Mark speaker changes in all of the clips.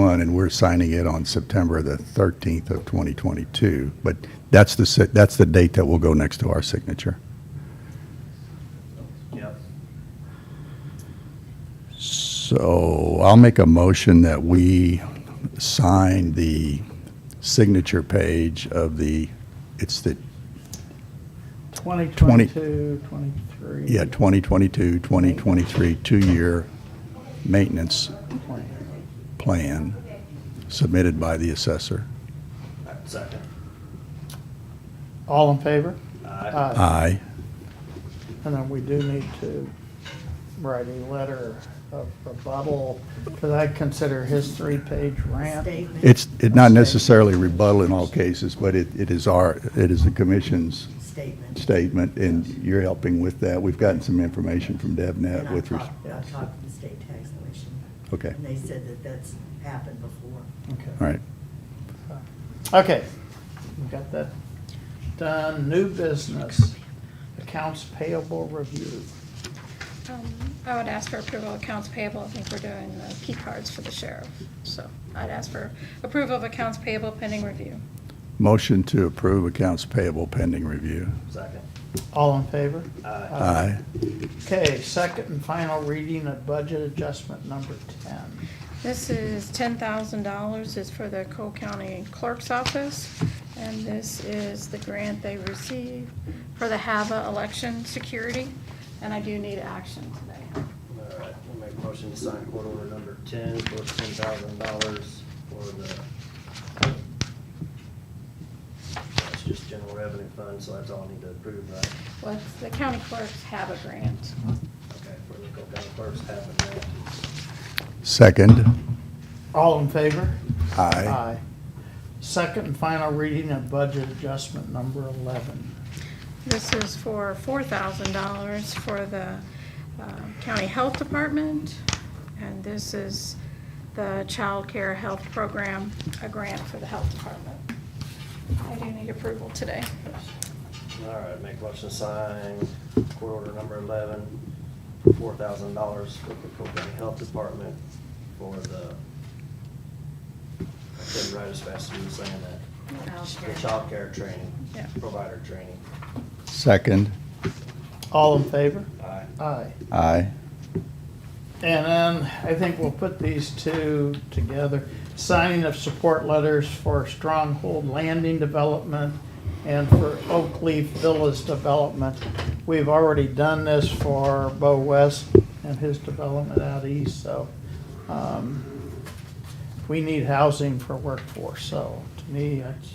Speaker 1: one, and we're signing it on September the 13th of 2022. But that's the, si- that's the date that will go next to our signature.
Speaker 2: Yep.
Speaker 1: So I'll make a motion that we sign the signature page of the, it's the,
Speaker 2: 2022, 23.
Speaker 1: yeah, 2022, 2023, two-year maintenance plan submitted by the assessor.
Speaker 3: Uh, Second.
Speaker 2: All in favor?
Speaker 3: Aye.
Speaker 2: Aye.
Speaker 1: Aye.
Speaker 2: And then we do need to write a letter of rebuttal, because I consider his three-page rant.
Speaker 4: Statement.
Speaker 1: It's it not necessarily rebuttal in all cases, but it it is our, it is the commission's
Speaker 4: Statement.
Speaker 1: statement, and you're helping with that. We've gotten some information from
Speaker 4: And
Speaker 1: DevNet
Speaker 4: I
Speaker 1: with, res-
Speaker 4: talked, I talked to the state tax commission,
Speaker 1: okay,
Speaker 4: and they said that that's happened before.
Speaker 2: Okay.
Speaker 1: all right.
Speaker 2: Okay, we got that done. New business, accounts payable review.
Speaker 5: Um, I would ask for approval of accounts payable. I think we're doing the key cards for the sheriff. So I'd ask for approval of accounts payable pending review.
Speaker 1: Motion to approve accounts payable pending review.
Speaker 3: Second.
Speaker 2: All in favor?
Speaker 3: Aye.
Speaker 1: Aye.
Speaker 2: Okay, second and final reading of budget adjustment number 10.
Speaker 5: This is ten thousand dollars is for the Cole County Clerk's Office. And this is the grant they received for the HAVA election security. And I do need action today.
Speaker 3: All right, we'll make a motion to sign court order number ten for ten thousand dollars for the, that's just general revenue fund, so that's all I need to approve, right?
Speaker 5: What's the county clerk's HAVA grant?
Speaker 3: Okay, for the Cole County Clerk's half of that.
Speaker 1: Second.
Speaker 2: All in favor?
Speaker 1: Aye.
Speaker 2: Second and final reading of budget adjustment number 11.
Speaker 5: This is for four thousand dollars for the uh, county health department, and this is the child care health program, a grant for the health department. I do need approval today.
Speaker 3: All right, make a motion to sign court order number eleven for four thousand dollars for the Cole County Health Department for the, I couldn't write as fast as you were saying that. The childcare training.
Speaker 5: Yeah.
Speaker 3: Provider training.
Speaker 1: Second.
Speaker 2: All in favor?
Speaker 3: Aye.
Speaker 2: Aye.
Speaker 1: Aye.
Speaker 2: And then I think we'll put these two together. Signing of support letters for Stronghold Landing Development and for Oak Leaf Villas Development. We've already done this for Bo West and his development out east, so, um, we need housing for workforce, so to me, that's.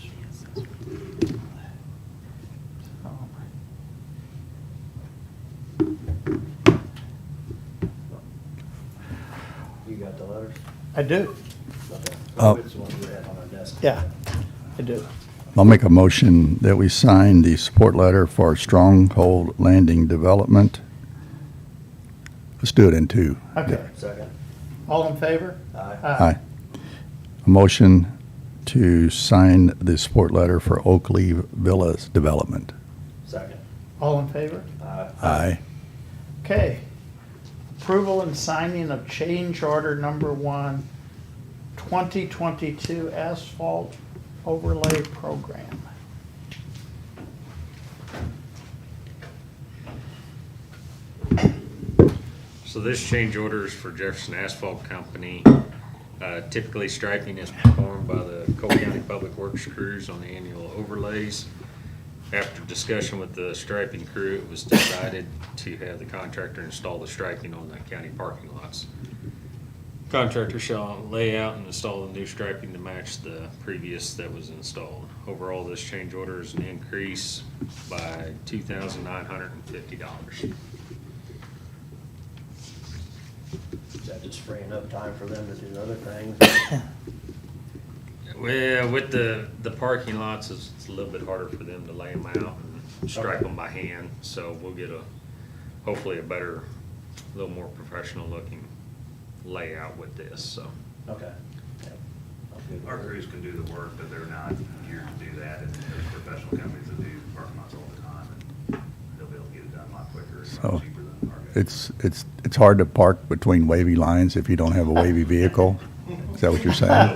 Speaker 3: You got the letters?
Speaker 2: I do,
Speaker 3: Okay.
Speaker 1: Uh,
Speaker 3: Which one we have on our desk?
Speaker 2: yeah, I do.
Speaker 1: I'll make a motion that we sign the support letter for Stronghold Landing Development. Let's do it in two.
Speaker 2: Okay,
Speaker 3: Second.
Speaker 2: all in favor?
Speaker 3: Aye.
Speaker 2: Aye.
Speaker 1: A motion to sign the support letter for Oakley Villas Development.
Speaker 3: Second.
Speaker 2: All in favor?
Speaker 3: Aye.
Speaker 1: Aye.
Speaker 2: Okay. Approval and signing of change order number one, 2022 asphalt overlay program.
Speaker 6: So this change order is for Jefferson Asphalt Company. Uh, Typically, striping is performed by the Cole County Public Works crews on the annual overlays. After discussion with the striping crew, it was decided to have the contractor install the striping on the county parking lots. Contractor shall lay out and install the new striping to match the previous that was installed. Overall, this change order is an increase by two thousand nine hundred and fifty dollars.
Speaker 3: Is that just freeing up time for them to do other things?
Speaker 6: Well, with the, the parking lots, it's, it's a little bit harder for them to lay them out and stripe them by hand, so we'll get a, hopefully a better, a little more professional looking layout with this, so.
Speaker 3: Okay. Yep. I'm good with
Speaker 7: Our
Speaker 3: it.
Speaker 7: crews can do the work, but they're not geared to do that, and there's professional companies that do parking lots all the time, and they'll be able to get it done a lot quicker and a
Speaker 1: So,
Speaker 7: lot cheaper than our guys.
Speaker 1: It's, it's, it's hard to park between wavy lines if you don't have a wavy vehicle. Is that what you're saying?